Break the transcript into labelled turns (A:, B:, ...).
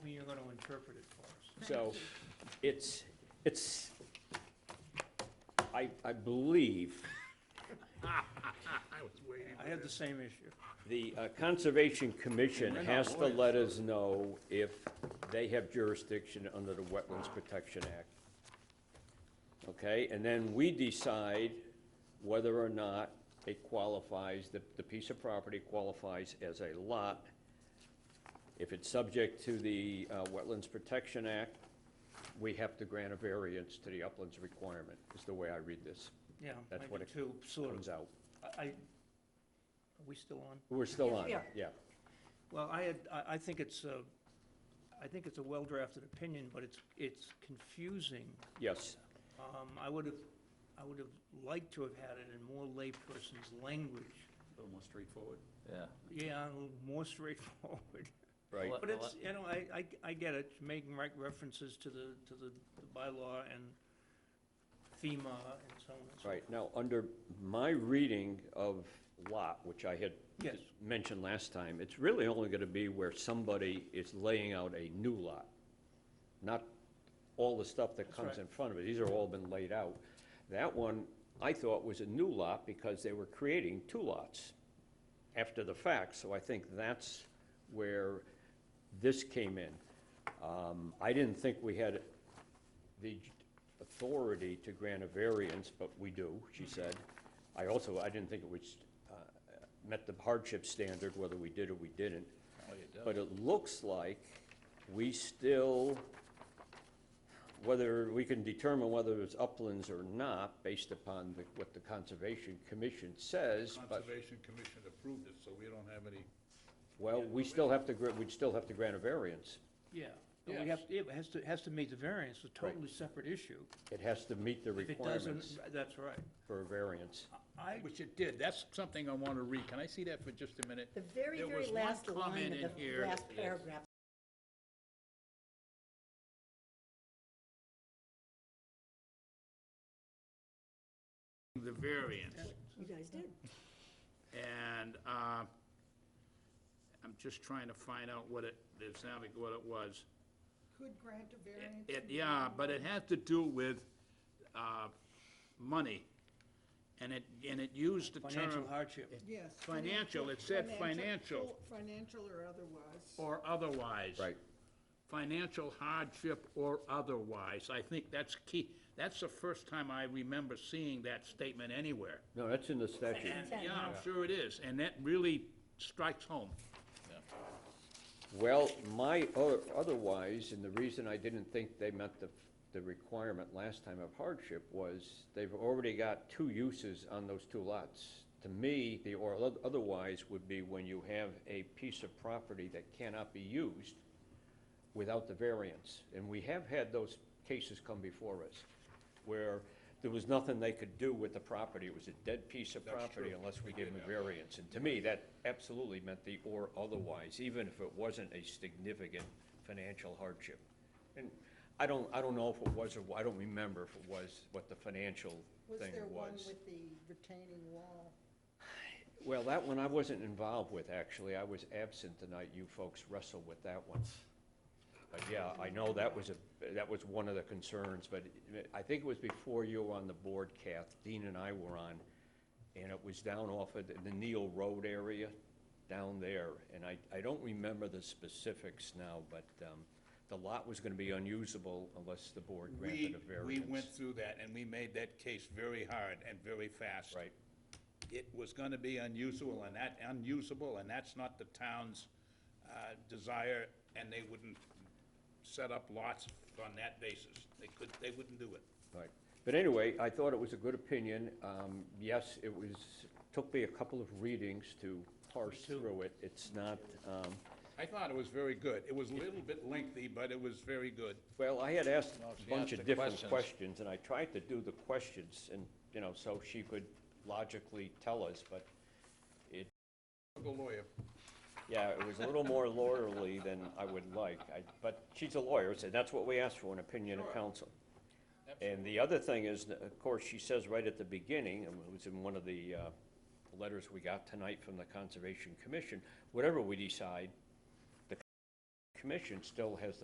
A: interpret it for us.
B: So it's, it's, I, I believe
C: I was waiting.
A: I had the same issue.
B: the uh, Conservation Commission
C: We're not
B: has to
C: lawyers,
B: let us know if they have jurisdiction under the Wetlands Protection Act. Okay, and then we decide whether or not it qualifies, the, the piece of property qualifies as a lot. If it's subject to the uh, Wetlands Protection Act, we have to grant a variance to the uplands requirement, is the way I read this.
A: Yeah,
B: That's what
A: maybe
B: it
A: two, sort of.
B: Comes out.
A: I, I- are we still on?
B: We're still
D: Yes,
B: on,
D: we
B: it,
D: are.
B: yeah.
A: Well, I had, I, I think it's a, I think it's a well-drafted opinion, but it's, it's confusing.
B: Yes,
A: Um, I would have, I would have liked to have had it in more layperson's language.
C: A little more straightforward.
E: Yeah.
A: Yeah, more straightforward.
B: right.
E: Well,
A: But it's, you know, I, I, I get it, making right references to the, to the bylaw and FEMA and so on and so
B: Right, now, under my reading of lot, which I had
A: Yes.
B: mentioned last time, it's really only gonna be where somebody is laying out a new lot, not all the stuff that comes
A: right.
B: in front of it, these are all been laid out. That one, I thought was a new lot because they were creating two lots after the fact, so I think that's where this came in. Um, I didn't think we had the authority to grant a variance, but we do, she said. I also, I didn't think it was, uh, met the hardship standard, whether we did or we didn't.
C: Oh,
B: But it looks like we still, whether, we can determine whether it's uplands or not, based upon the- what the Conservation Commission says, but,
C: Conservation Commission approved it, so we don't have any,
B: well, we still have to, gra- we'd still have to grant a variance.
A: Yeah, but we have, it has to, has to meet the variance, a
B: Right.
A: totally separate issue.
B: It has to meet the
A: If it doesn't, Uh,
B: requirements
A: that's right.
B: for a variance.
A: I,
C: which it did. That's something I want to read. Can I see that for just a minute?
D: The very,
C: There
D: very
C: was one
D: last line
C: comment in
D: of the
C: here
D: last
C: that-
D: paragraph
C: The variance.
D: you guys did.
C: And uh, I'm just trying to find out what it, it sounded like what it was.
F: could grant a variance.
C: It, yeah, but it has to do with uh, money. And it, and it used the term.
A: financial hardship.
F: Yes.
C: Financial, it said financial.
F: full- Financial or otherwise.
C: Or otherwise.
B: Right.
C: Financial hardship or otherwise. I think that's key. That's the first time I remember seeing that statement anywhere.
B: No, that's in the statute.
C: And, yeah, I'm sure it is, and that really strikes home.
B: Well, my, o- otherwise, and the reason I didn't think they met the, the requirement last time of hardship was they've already got two uses on those two lots. To me, the or oth- otherwise would be when you have a piece of property that cannot be used without the variance. And we have had those cases come before us where there was nothing they could do with the property. It was a dead piece of property unless we gave them a variance. And to me, that absolutely meant the or otherwise, even if it wasn't a significant financial hardship. And I don't, I don't know if it was or, I don't remember if it was, what the financial
F: Was
B: thing
F: there one
B: was.
F: with the retaining wall?
B: Well, that one I wasn't involved with, actually. I was absent tonight. You folks wrestled with that one. But yeah, I know that was a, that was one of the concerns, but I think it was before you were on the board, Kath, Dean and I were on, and it was down off of the- the Neil Road area, down there, and I, I don't remember the specifics now, but, um, the lot was gonna be unusable unless the board granted
C: We,
B: a variance.
C: we went through that, and we made that case very hard and very fast.
B: Right.
C: It was gonna be unusable, and that, unusable, and that's not the town's uh, desire, and they wouldn't set up lots on that basis. They could, they wouldn't do it.
B: Right. But anyway, I thought it was a good opinion. Um, Yes, it was, took me a couple of readings to parse through it. It's not, um,
C: I thought it was very good. It was a little bit lengthy, but it was very good.
B: well, I had asked a
E: she asked
B: bunch of
E: the
B: different
E: questions.
B: questions, and I tried to do the questions, and, you know, so she could logically tell us, but it,
C: Go lawyer.
B: yeah, it was a little more lawyerly than I would like. I- But she's a lawyer, so that's what we asked for, an opinion of counsel. And the other thing is, that, of course, she says right at the beginning, and it was in one of the uh, letters we got tonight from the Conservation Commission, whatever we decide, the commission still has the